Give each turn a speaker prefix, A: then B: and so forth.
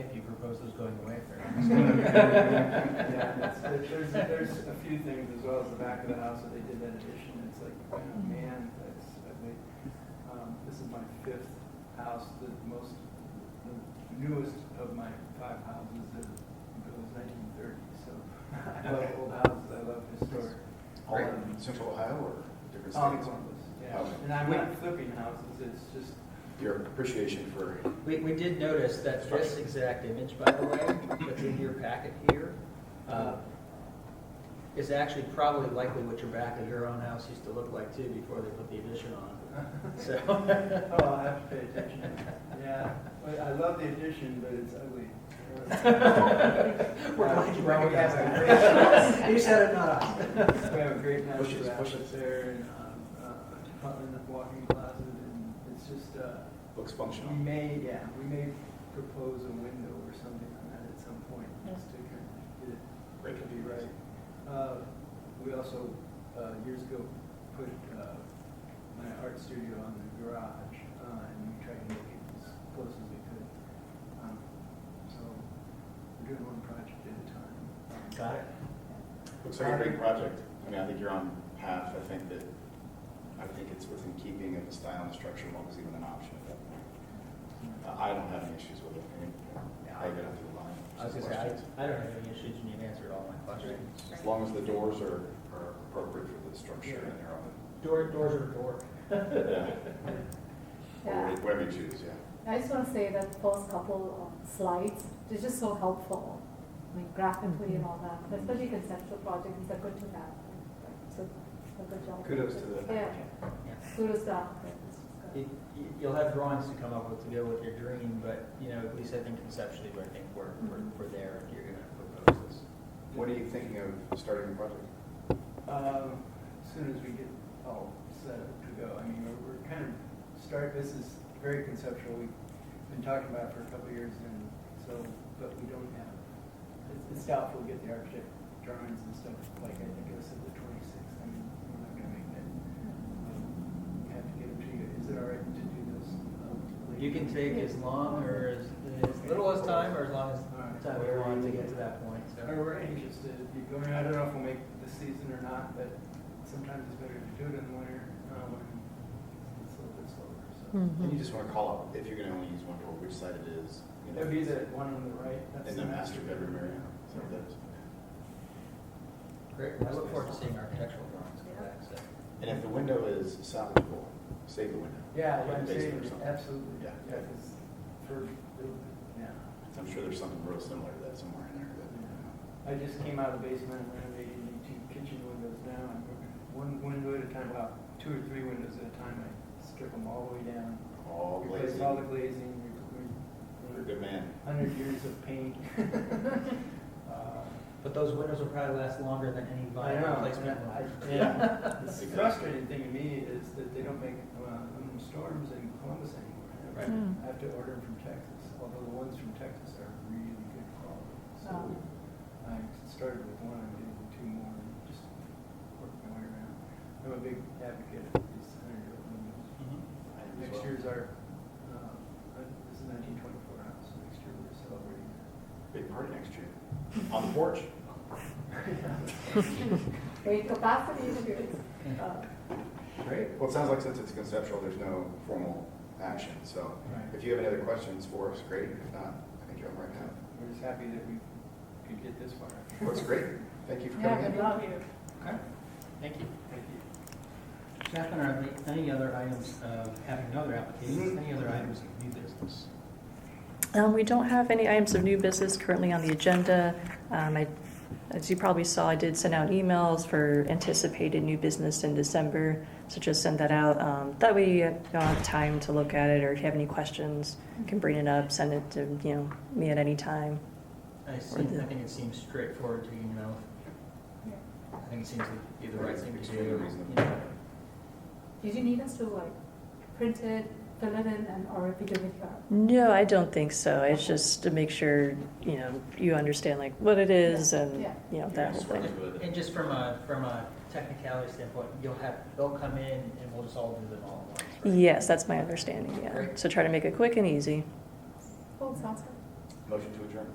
A: proposed was going away for.
B: Yeah, that's- there- there's, there's a few things as well as the back of the house that they did that addition, it's like, oh, man, that's, I think, um, this is my fifth house, the most, the newest of my five houses that was nineteen thirty, so I love old houses, I love historic.
C: All in central Ohio or different
B: All
C: states?
B: one of those,
C: Okay.
B: yeah, and I'm not flipping houses, it's just,
C: Your appreciation for,
A: We, we did notice that this exact image, by the way, that's in your packet here, uh, is actually probably likely what your back of your own house used to look like too before they put the addition on. So,
B: oh, I have to pay attention, yeah, But I love the addition, but it's ugly.
A: we're glad you
B: Uh, well, we have
A: recognized
B: a
A: that. You said it, not us.
B: We have a great
C: Push
B: natural
C: it, push
B: rapids there and, um, uh, Putland walking plaza and it's just, uh,
C: looks
B: we
C: functional.
B: may, yeah, we may propose a window or something on that at some point, just to kind of get it,
C: Great.
B: it could be right. Uh, we also, uh, years ago, put, uh, my art studio on the garage, uh, and we tried to make it as close as we could. Um, So, we're doing one project at a time. Um,
A: Got it.
C: Looks like a great project. I mean, I think you're on path. I think that, I think it's within keeping of the style and the structure, and what was even an option at that point. Uh, I don't have any issues with it. I mean, I get it through the line.
A: I was gonna say, I, I don't have any issues and you've answered all my questions.
C: As long as the doors are, are appropriate for the structure and they're
A: Door, doors are door.
C: on,
D: Yeah.
C: yeah. Whatever you choose, yeah.
D: I just want to say that first couple of slides, they're just so helpful, like graphically and all that, especially conceptual projects, they're good to have. So, so good job.
C: Kudos to the
D: Yeah,
C: applicant.
D: kudos to architects.
A: You- you- You'll have drawings to come up with to go with your dream, but, you know, at least I think conceptually, I think we're, we're, we're there if you're gonna propose this.
C: What are you thinking of starting the project?
B: Um, As soon as we get all set up to go, I mean, we're, we're kind of start, this is very conceptual, we've been talking about it for a couple of years and so, but we don't have, it's- it's doubtful we'll get the architect drawings and stuff, like I think it was at the twenty-sixth, I mean, we're not gonna make that. Um, Have to get them to you, is it all right to do this? um,
A: You can take as long or as, as little as time or as long as time you want to get to that point,
B: Or
A: so.
B: we're anxious to be going, I don't know if we'll make this season or not, but sometimes it's better to do it in the winter, uh, when it's a little bit slower, so.
C: And you just want to call out, if you're going to only use one door, which side it is, you
B: That'd be the
C: know,
B: one on the right. that's
C: in the master bedroom area. So that's-
A: Great, I look forward to seeing architectural drawings come back, so.
C: And if the window is salvageable, save the window.
B: Yeah,
C: Like
B: yeah, I'm
C: basement
B: saying,
C: or something.
B: absolutely, yeah,
C: Yeah.
B: 'cause for, yeah.
C: I'm sure there's something real similar to that somewhere in there, but
B: I just came out of the basement and renovated the two kitchen windows now, and one window at a time, about two or three windows at a time, I strip them all the way down.
C: all
B: Replace
C: glazing.
B: all the glazing,
C: You're a
B: re- re-
C: good man.
B: hundred years of paint. Uh,
A: But those windows will probably last longer than any
B: I
A: vinyl
B: know.
A: replacement
B: and
A: will.
B: I- Yeah. The
C: Exactly.
B: frustrating thing to me is that they don't make uh, aluminum storms in Columbus
A: Right.
B: anymore.
E: Mm-hmm. Um,
A: Mm.
B: I have to order them from Texas, although the ones from Texas are really good quality.
D: Oh.
B: So I started with one, I'm getting two more, and just work my way around. I'm a big advocate of these hundred-year-old windows.
A: Mhm.
C: I am as
B: Next
C: well.
B: year's our, uh, this is nineteen twenty-four house, so next year we're celebrating that.
C: Big party next year. On the porch.
D: Great capacity issues. Uh,
C: Great. Well, it sounds like since it's conceptual, there's no formal action. So
B: Right.
C: if you have any other questions for us, great. If not, I think you're on right now.
B: We're just happy that we could get this far.
C: Well, it's great. Thank you for
D: Yeah,
C: coming
D: good
C: in.
D: luck.
A: Okay, thank you.
B: Thank you.
A: Chaplain, are there any other items, uh, having other applications, any other items of new business?
E: Um, We don't have any items of new business currently on the agenda. Um, I- As you probably saw, I did send out emails for anticipated new business in December, so just send that out. Um, That way you don't have time to look at it, or if you have any questions, you can bring it up, send it to, you know, me at any time.
A: I seem, I think it seems straightforward to, you know,
D: yeah.
A: I think it seems to be the right thing to do.
C: Extremely reasonable.
A: you know.
D: Did you need us to like print it, fill it in, and or if you do it yourself?
E: No, I don't think so. It's just to make sure, you know, you understand like what it is and,
D: Yeah.
E: you know, that whole thing.
A: And just from a, from a technicality standpoint, you'll have, they'll come in and we'll just all do them all at once, right?
E: Yes, that's my understanding, yeah.
A: Great.
E: So try to make it quick and easy.
D: Oh, sounds good.
C: Motion to adjourn.